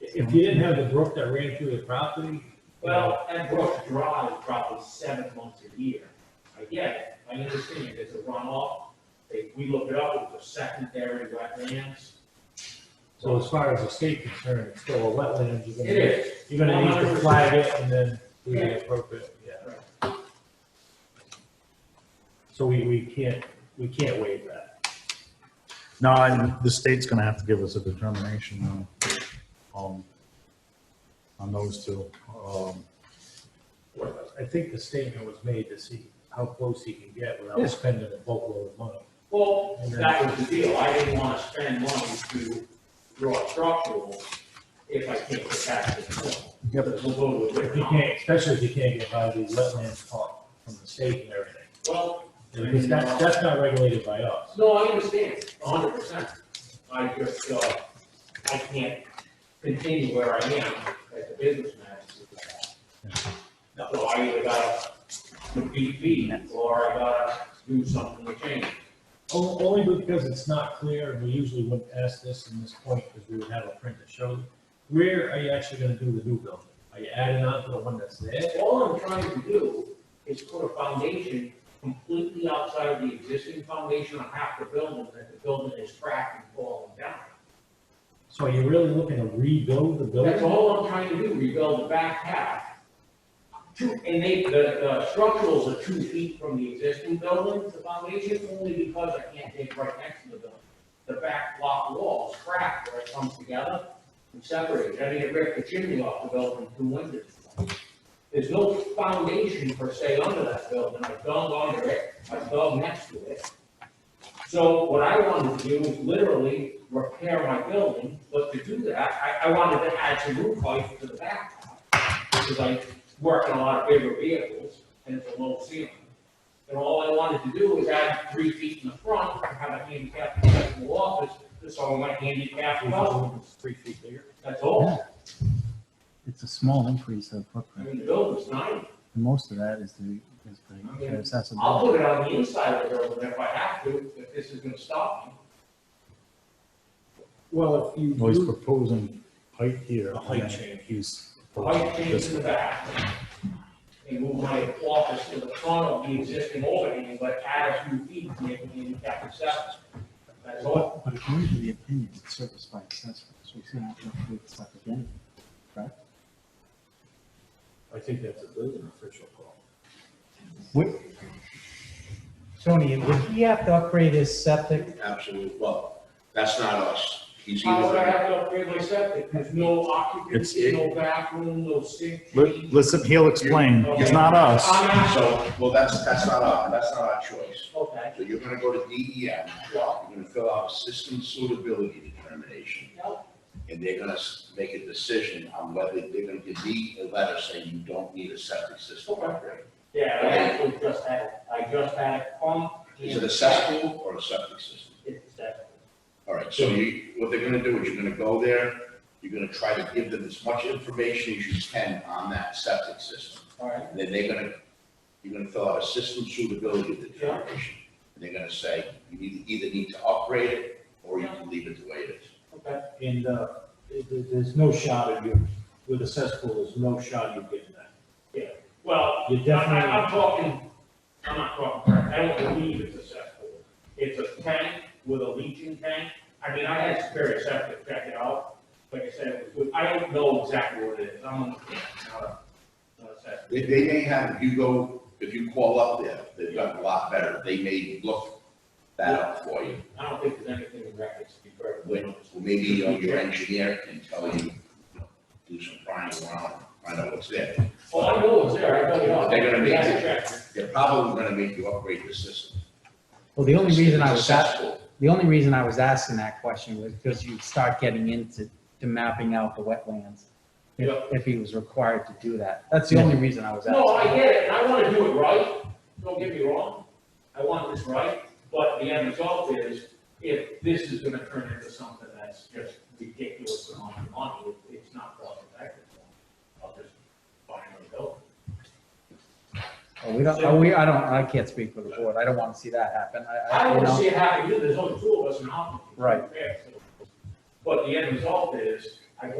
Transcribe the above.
If you didn't have the brook that ran through the property, Well, that Brook Drive probably seven months a year. I get it, I understand, there's a runoff. They, we looked it up, it was a secondary wetlands. so as far as the state concerned, it's still a wetland, you're It gonna, is, you're gonna need to 100%. flag it and then do the appropriate, yeah. So we, we can't, we can't waive that. No, I- the state's gonna have to give us a determination on, um, on those two. Um, I think the statement was made to see how close he can get Yeah. without spending a boatload of money. well, that was the deal, I didn't wanna spend money to draw structural if I can't get back to the point. Yep. We'll go to a If you different. can't, especially if you can't get by the wetlands part from the state and everything. Well, Because that's, that's not regulated by us. no, I understand, hundred percent. I just, uh, I can't continue where I am as a businessman. So I either gotta compete fee, or I gotta do something to change. O- Only because it's not clear, and we usually wouldn't ask this in this point, because we would have a print to show. Where are you actually gonna do the new building? Are you adding on to the one that's there? All I'm trying to do is put a foundation completely outside of the existing foundation on half the building, that the building is cracked and falling down. So are you really looking to rebuild the That's building? all I'm trying to do, rebuild the back half. Two, and they, the, the structurals are two feet from the existing building, the foundation, only because I can't dig right next to the building. The back block wall is cracked where it comes together and separated, I mean, it ripped the chimney off the building two winters. ago. There's no foundation per se under that building, I dug under it, I dug next to it. So what I wanted to do was literally repair my building, but to do that, I, I wanted to add some roof height to the back. Because I work on a lot of bigger vehicles, and it's a low ceiling. And all I wanted to do was add three feet in the front, and have a handicap accessible office, just so my handicap was, Three feet bigger. that's all. It's a small increase of I footprint, mean, the building's nine, and most of that is the, is the the I'll accessibility. put it on the inside of the building if I have to, if this is gonna stop me. Well, if you, well, he's do- proposing height here. A height and change. He's. White change in the back. And move my office to the front of the existing opening, but add a few feet, maybe handicap accessible. That's all. But according to the opinion, it's serviced by accessories, so it's gonna have to include stuff again. I think that's a building official call. Would- Tony, would he have to upgrade his septic? Absolutely, well, that's not us. He's How would I either, have to upgrade my septic? There's no occupancy, It's- no bathroom, no sink. Li- Listen, he'll explain. It's not us. I'm out. so, well, that's, that's not our, that's not our choice. Okay. So you're gonna go to DEM, you're gonna fill out a system suitability determination, Yep. and they're gonna s- make a decision on whether they're gonna give me a letter saying you don't need a septic system upgrade. Yeah, I actually just had, I just had a pump. and- Is it a cesspool or a septic system? It's that. All right, so you, what they're gonna do is you're gonna go there, you're gonna try to give them as much information as you can on that septic system. All right. And then they're gonna, you're gonna fill out a system suitability determination. And they're gonna say, you need, either need to upgrade it, or you can leave it the way it is. Okay. And, uh, it- it- there's no shot at you, with a cesspool, there's no shot you're getting that. Well, You're Yeah, I- definitely, I'm talking, I'm not talking, I don't believe it's a cesspool. It's a tank with a leaching tank. I mean, I had Superior Septic check it out. Like I said, it was good. I don't know exactly what it is. I'm on the, not a, not a septic. They, they may have, if you go, if you call up there, they've done a lot better, they may look that up for you. I don't think there's anything in records to be perfectly When, honest. maybe you know, your engineer can tell you, you know, do some prying around, find out what's there. Well, I know it's there. I dug it up. They're gonna be- I had to check. They're probably gonna make you upgrade the system. Well, the only reason I was, a- Successful. the only reason I was asking that question was because you start getting into, to mapping out the wetlands. If, Yeah. if he was required to do that. That's the only reason I was asking. No, I get it, and I wanna do it right, don't get me wrong, I want this right, but the end result is, if this is gonna turn into something that's just ridiculous amount of money, it- it's not cost effective. I'll just buy another building. Oh, We don't, oh, we, I don't, I can't speak for the board. I don't want to see that happen. I, I I, don't you wanna know, see it happen, either. there's only two of us in Hopkins. Right. But the end result is,